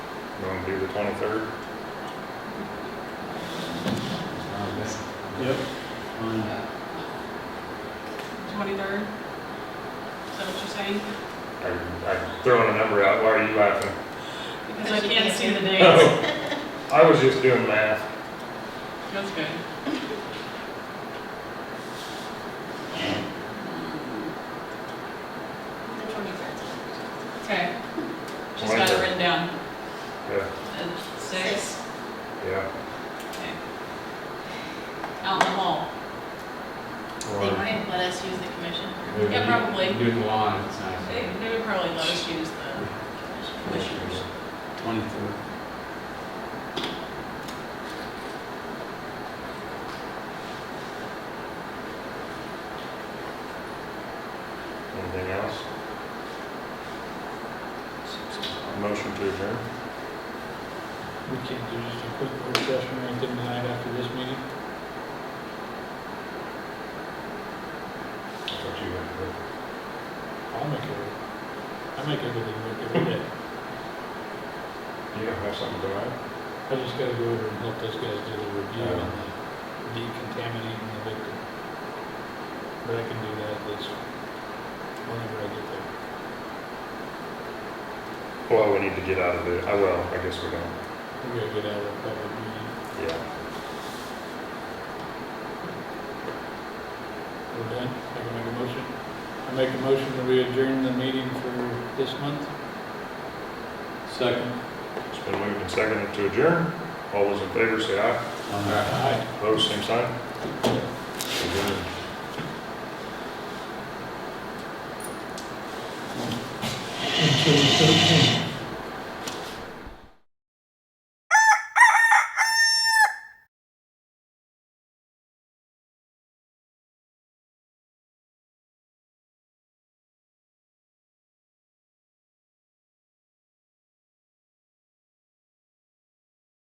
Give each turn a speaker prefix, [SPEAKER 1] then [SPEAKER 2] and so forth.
[SPEAKER 1] You wanna do the twenty-third?
[SPEAKER 2] Yep.
[SPEAKER 3] Twenty-third? Is that what you're saying?
[SPEAKER 1] I'm throwing a number out, why are you laughing?
[SPEAKER 3] Because I
[SPEAKER 4] Because you
[SPEAKER 3] can't
[SPEAKER 4] can't
[SPEAKER 3] see
[SPEAKER 4] see
[SPEAKER 3] the
[SPEAKER 4] the
[SPEAKER 3] dates.
[SPEAKER 1] Oh, I was just doing math.
[SPEAKER 3] That's good.
[SPEAKER 4] The twenty-third.
[SPEAKER 3] Okay. She's got it
[SPEAKER 1] 23rd.
[SPEAKER 3] written down.
[SPEAKER 1] Yeah,
[SPEAKER 3] At Six,
[SPEAKER 1] yeah.
[SPEAKER 3] okay. Out in the hall.
[SPEAKER 4] They might let us use the commission.
[SPEAKER 2] Maybe we
[SPEAKER 3] Yeah, probably.
[SPEAKER 2] do- Do the lawn, it's nice.
[SPEAKER 3] They, they would probably let us use the commissioners.
[SPEAKER 2] Twenty-third.
[SPEAKER 1] Anything else? Motion to adjourn?
[SPEAKER 5] We can't do just a quick work session or anything tonight after this meeting?
[SPEAKER 1] That's what you want
[SPEAKER 5] I'll make it work. I make everything work every day.
[SPEAKER 1] to do. You don't have something to add?
[SPEAKER 5] I just gotta go over and help those guys do the review and the decontaminating the victim. But I can do that this, whenever I get there.
[SPEAKER 1] Well, we need to get out of the, I will, I guess we're gonna,
[SPEAKER 5] We're gonna get out of the public meeting,
[SPEAKER 1] yeah.
[SPEAKER 5] we're done, I can make a motion. I make a motion that we adjourn the meeting for this month.
[SPEAKER 2] Second.
[SPEAKER 1] It's been moved and seconded to adjourn. All those in favor say aye.
[SPEAKER 2] All right.
[SPEAKER 5] Aye.
[SPEAKER 1] Opposed, same sign. Adjourned.
[SPEAKER 5] Until the 13th.